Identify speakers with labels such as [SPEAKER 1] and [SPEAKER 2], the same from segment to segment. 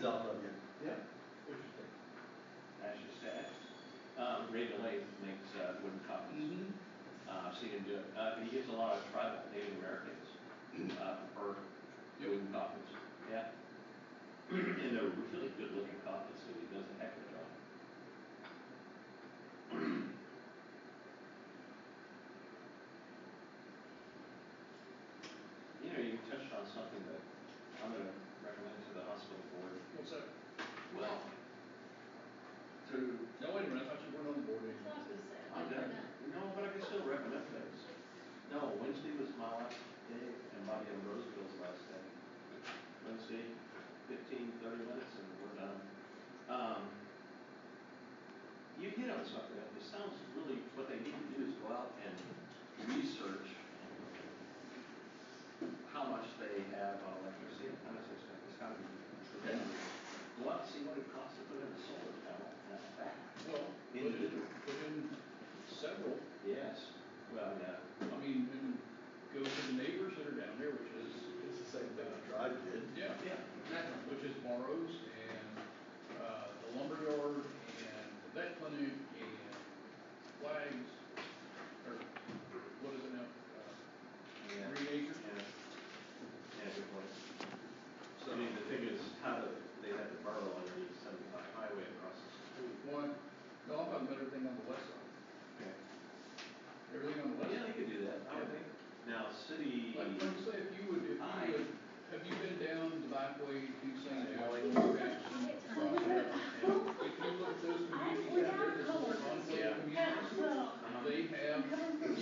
[SPEAKER 1] South Road.
[SPEAKER 2] Yeah.
[SPEAKER 1] Interesting.
[SPEAKER 3] That's just that. Um, Ray Delay makes, uh, wooden copies,
[SPEAKER 2] Mhm.
[SPEAKER 3] uh, so you can do it. Uh, he gives a lot of tribal Native Americans, uh, for
[SPEAKER 2] Yep.
[SPEAKER 3] wooden copies, yeah. And they're really good looking copies, so he does a heck of a job. You know, you touched on something that I'm gonna recommend to the hospital board,
[SPEAKER 2] What's that?
[SPEAKER 3] well, to
[SPEAKER 2] No, wait a minute, I thought you weren't on the board
[SPEAKER 4] That's what I was gonna say.
[SPEAKER 3] I'm done. No, but I can still recommend things. No, Wednesday was my last day and Bobby and Roseville's last day. Wednesday, fifteen, thirty minutes and we're done. Um, you hit on something, it sounds really, what they need to do is go out and research how much they have on electricity and how much they spend, it's gotta be tremendous. Go out and see what it costs to put in a solar panel and a back.
[SPEAKER 2] Well, put in,
[SPEAKER 3] Individual.
[SPEAKER 2] put in several,
[SPEAKER 3] Yes, well, yeah.
[SPEAKER 2] I mean, and go to the neighbors that are down there, which is,
[SPEAKER 1] It's the same thing I tried, did.
[SPEAKER 2] yeah,
[SPEAKER 3] Yeah,
[SPEAKER 2] exactly, which is Morrow's and, uh, the lumberyard and the vet clinic and flags, or what is it now? Uh,
[SPEAKER 3] yeah,
[SPEAKER 2] Three acres?
[SPEAKER 3] yeah. Yeah, good point. So, I mean, the thing is, how do, they have to burrow underneath seventy-five highway across the street.
[SPEAKER 2] One, no, I'm talking about everything on the west side, everything on the
[SPEAKER 3] Well,
[SPEAKER 2] west.
[SPEAKER 3] yeah, they could do that, I would think. Now, city,
[SPEAKER 2] Like, like I say, if you would, if you
[SPEAKER 3] I-
[SPEAKER 2] would, have you been down the byway to St. Alex?
[SPEAKER 4] I
[SPEAKER 2] If you look at those communities out there,
[SPEAKER 4] Without
[SPEAKER 2] those
[SPEAKER 4] colors.
[SPEAKER 2] enclave communities, they have,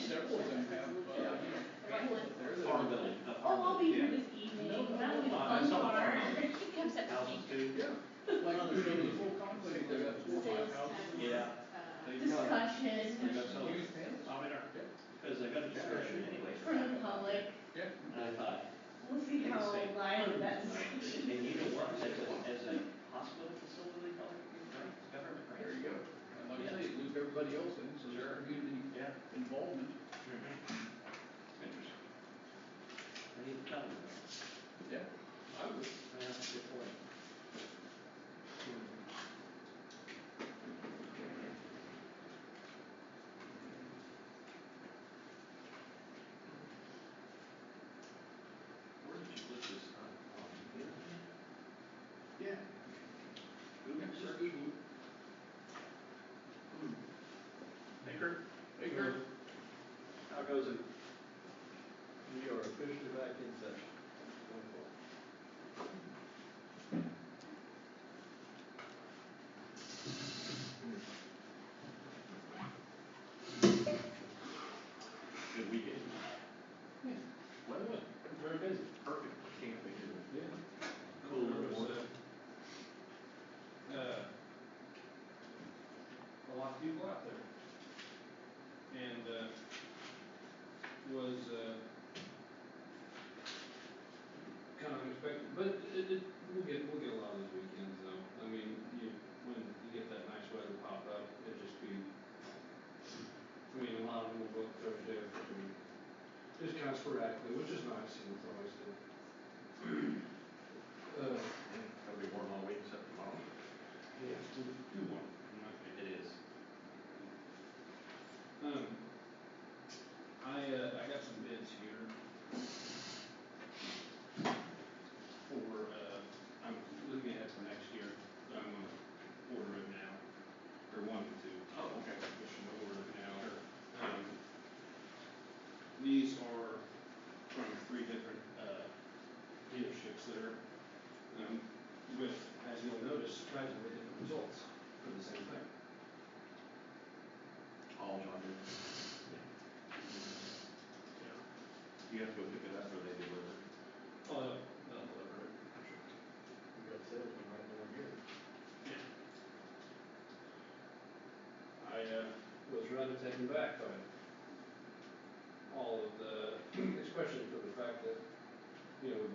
[SPEAKER 2] several of them have, uh, you know, families there that
[SPEAKER 3] farm
[SPEAKER 2] are.
[SPEAKER 3] building, a farm
[SPEAKER 4] Oh, I'll be here
[SPEAKER 3] building,
[SPEAKER 4] this evening, that'll be the
[SPEAKER 3] Uh,
[SPEAKER 4] fun
[SPEAKER 3] some of
[SPEAKER 4] part.
[SPEAKER 3] them.
[SPEAKER 4] She comes
[SPEAKER 3] yeah.
[SPEAKER 4] up to
[SPEAKER 3] Houses
[SPEAKER 4] me.
[SPEAKER 3] too.
[SPEAKER 2] Yeah, like, you know, this whole conclave, they got four,
[SPEAKER 4] Sales
[SPEAKER 2] or five houses.
[SPEAKER 4] tax.
[SPEAKER 3] Yeah.
[SPEAKER 4] uh,
[SPEAKER 3] They-
[SPEAKER 4] Discussion
[SPEAKER 3] Yeah.
[SPEAKER 2] and Huge families.
[SPEAKER 3] I mean, because they got a discretion anyway.
[SPEAKER 4] for the public,
[SPEAKER 2] Yeah,
[SPEAKER 3] And I thought,
[SPEAKER 4] we'll see how
[SPEAKER 3] Insane.
[SPEAKER 4] lively that
[SPEAKER 3] and
[SPEAKER 4] discussion.
[SPEAKER 3] you know what, as a, as a hospital facility, public, right, government, right?
[SPEAKER 2] there you go. And like I say, it loop everybody else in, so there's community
[SPEAKER 3] Yeah.
[SPEAKER 2] involvement.
[SPEAKER 3] Interesting. I need to tell you that.
[SPEAKER 2] Yeah. I would,
[SPEAKER 3] Yeah, that's a good point. Where did you put this on? on the internet?
[SPEAKER 2] yeah.
[SPEAKER 3] Google
[SPEAKER 2] Just
[SPEAKER 3] search?
[SPEAKER 2] Google.
[SPEAKER 3] Baker?
[SPEAKER 2] Baker.
[SPEAKER 3] How goes it?
[SPEAKER 1] We are officially back in session.
[SPEAKER 3] Good weekend. Weather was very busy. Perfect. Can't think of it.
[SPEAKER 1] Yeah.
[SPEAKER 3] Cool.
[SPEAKER 1] There was, uh, uh, a lot of people out there. And, uh, was, uh, kind of unexpected, but it, it, we'll get, we'll get a lot of those weekends though. I mean, you, when you get that nice weather pop up, it'd just be, I mean, a lot of them will book Thursday or Friday. Just kind of sporadically, which is nice, and it's always good. Uh,
[SPEAKER 3] It'll be warm all week except tomorrow.
[SPEAKER 1] yeah, it's too, too warm, in my opinion.
[SPEAKER 3] It is.
[SPEAKER 1] Um, I, uh, I got some bids here. For, uh, I'm looking ahead for next year, but I'm gonna order it now, or wanting to.
[SPEAKER 3] Oh, okay.
[SPEAKER 1] We should order it now. Um, these are from three different, uh, dealerships that are, um, with, as you'll notice, surprisingly different results for the same thing.
[SPEAKER 3] All John. You have to go pick it up or they deliver.
[SPEAKER 1] Oh, they'll, they'll deliver it.
[SPEAKER 2] We got salesmen right over here.
[SPEAKER 1] I, uh, was rather taken back by